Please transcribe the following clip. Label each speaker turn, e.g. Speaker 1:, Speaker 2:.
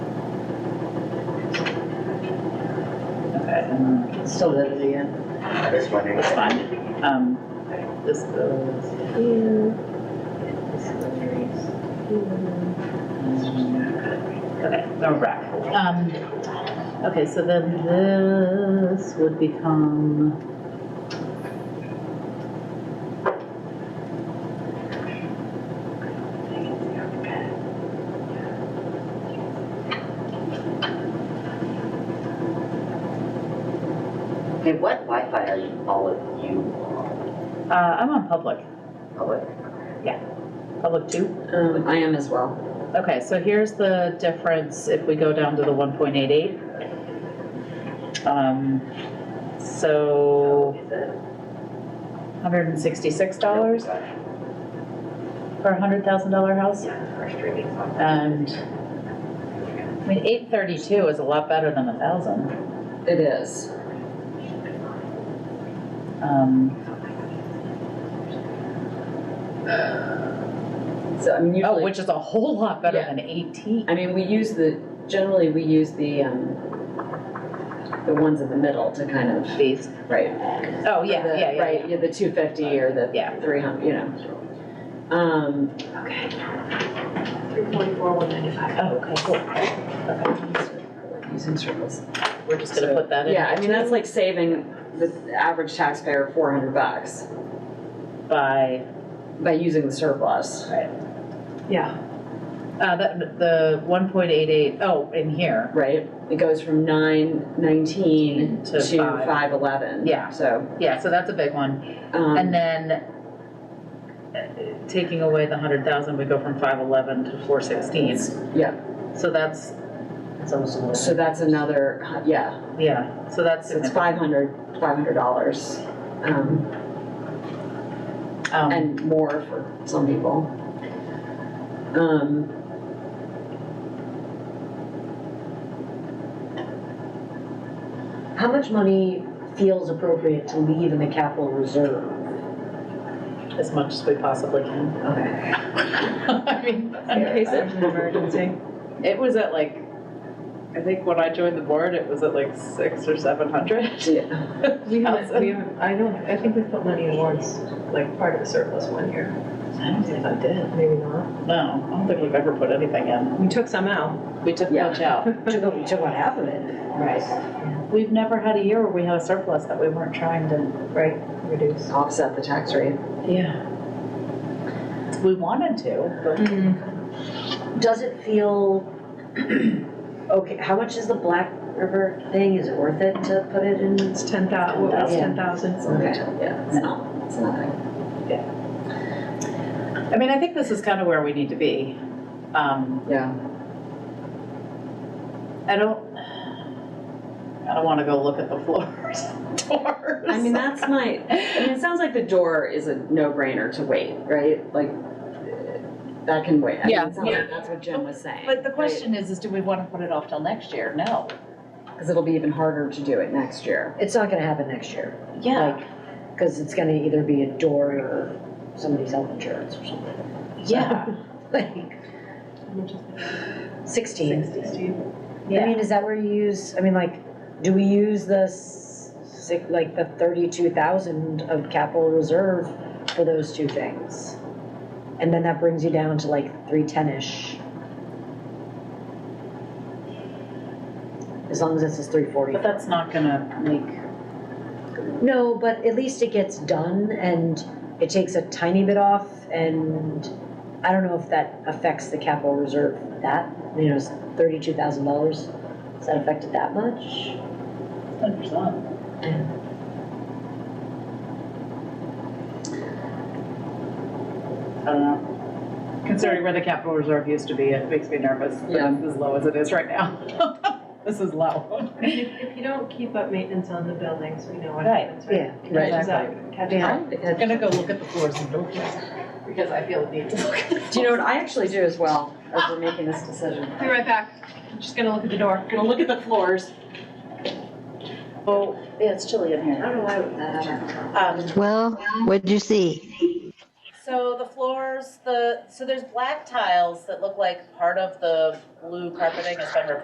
Speaker 1: five, and it's still good at the end,
Speaker 2: I just wondering.
Speaker 1: it's fine. Um, this goes here. This goes here. Okay, now we're back. Um, okay, so then this would become.
Speaker 2: Hey, what Wi-Fi are you, all of you on?
Speaker 1: Uh, I'm on public,
Speaker 2: Public?
Speaker 1: public two.
Speaker 3: Um, I am as well.
Speaker 1: Okay, so here's the difference if we go down to the one point eight eight. Um, so
Speaker 2: Is it?
Speaker 1: hundred and sixty-six dollars
Speaker 2: Yeah,
Speaker 1: for a hundred thousand dollar house.
Speaker 2: For streaming.
Speaker 1: And, I mean, eight thirty-two is a lot better than a thousand.
Speaker 3: It is.
Speaker 1: Um,
Speaker 3: So, I mean,
Speaker 1: oh,
Speaker 3: usually,
Speaker 1: which is a whole lot better
Speaker 3: Yeah.
Speaker 1: than eighteen.
Speaker 3: I mean, we use the, generally, we use the, um, the ones in the middle to kind of,
Speaker 1: These,
Speaker 3: right?
Speaker 1: oh, yeah, yeah,
Speaker 3: The-
Speaker 1: yeah, yeah.
Speaker 3: Right, yeah, the two fifty or the
Speaker 1: Yeah.
Speaker 3: three hundred, you know. Um,
Speaker 1: Oh, okay, cool.
Speaker 3: using circles.
Speaker 1: We're just gonna
Speaker 3: So,
Speaker 1: put that in.
Speaker 3: Yeah, I mean, that's like saving the average taxpayer four hundred bucks
Speaker 1: By,
Speaker 3: by using the surplus.
Speaker 1: uh, the, the one point eight eight, oh, in here,
Speaker 3: right? It goes from nine nineteen
Speaker 1: To
Speaker 3: to
Speaker 1: five.
Speaker 3: five eleven.
Speaker 1: Yeah.
Speaker 3: So,
Speaker 1: yeah, so that's a big one. And
Speaker 3: um,
Speaker 1: then, uh, taking away the hundred thousand, we go from five eleven to four sixteen,
Speaker 3: yeah,
Speaker 1: so that's. That's almost a
Speaker 3: so that's another, hu- yeah,
Speaker 1: Yeah, so that's,
Speaker 3: so it's
Speaker 1: significant.
Speaker 3: five hundred, five hundred dollars. Um,
Speaker 1: um,
Speaker 3: and more for some people. Um,
Speaker 4: How much money feels appropriate to leave in the capital reserve?
Speaker 1: as much as we possibly can.
Speaker 4: Okay.
Speaker 1: I mean, in case of an emergency. It was at like, I think when I joined the board, it was at like six or seven hundred.
Speaker 3: yeah,
Speaker 5: We haven't, we haven't, I don't, I think we put money in once, like part of the surplus one year.
Speaker 1: I don't think I did.
Speaker 5: Maybe not.
Speaker 1: No, I don't think we've ever put anything in.
Speaker 5: We took some out.
Speaker 1: We took
Speaker 3: Yeah.
Speaker 1: much out.
Speaker 4: Took, up- took about half of it.
Speaker 1: Right. We've never had a year where we had a surplus that we weren't trying to,
Speaker 5: Right, reduce.
Speaker 3: offset the tax rate.
Speaker 1: yeah. We wanted to, but.
Speaker 5: Mm-hmm.
Speaker 4: Does it feel, okay, how much is the Black River thing? Is it worth it to put it in?
Speaker 5: It's ten thou, what was
Speaker 4: Yeah.
Speaker 5: ten thousand?
Speaker 3: Okay, yeah, it's not, it's nothing.
Speaker 1: I mean, I think this is kind of where we need to be. Um,
Speaker 3: Yeah,
Speaker 1: I don't, I don't want to go look at the floors, doors.
Speaker 3: I mean, that's my, I mean, it sounds like the door is a no-brainer to wait, right? Like, that can wait. I mean, it
Speaker 1: Yeah.
Speaker 3: sounds like That's what Jim was saying.
Speaker 1: But the
Speaker 3: right?
Speaker 1: question is, is do we want to put it off till next year? No.
Speaker 3: Because it'll be even harder to do it next year.
Speaker 4: It's not gonna happen next year. Like, Cause it's gonna either be a door or somebody's health insurance or something.
Speaker 1: Yeah.
Speaker 4: Like sixteen.
Speaker 5: Sixty.
Speaker 4: I mean, is that where you use, I mean, like, do we use the six, like the thirty-two thousand of capital reserve for those two things? And then that brings you down to like three-ten-ish. As long as this is three forty.
Speaker 1: But that's not gonna make,
Speaker 4: No, but at least it gets done and it takes a tiny bit off and I don't know if that affects the capital reserve that, you know, it's thirty-two thousand dollars. Does that affect it that much?
Speaker 1: I don't know. Considering where the capital reserve used to be, it makes me nervous. that
Speaker 3: Yeah.
Speaker 1: It's as low as it is right now. This is low.
Speaker 5: If you don't keep up maintenance on the buildings, we know what
Speaker 1: Right,
Speaker 5: happens, right?
Speaker 4: Yeah.
Speaker 5: It
Speaker 3: right.
Speaker 5: catches up, catches up.
Speaker 1: I'm gonna go look at the floors and doors because I feel the need to look.
Speaker 3: Do you know what I actually do as well as we're making this decision?
Speaker 5: Be right back. I'm Just gonna look at the door.
Speaker 3: Gonna look at the floors.
Speaker 1: Oh, yeah, it's chilly in here.
Speaker 3: I don't know why that happened.
Speaker 1: Um,
Speaker 6: Well, what'd you see?
Speaker 1: So the floors, the, so there's black tiles that look like part of the blue carpeting has been replaced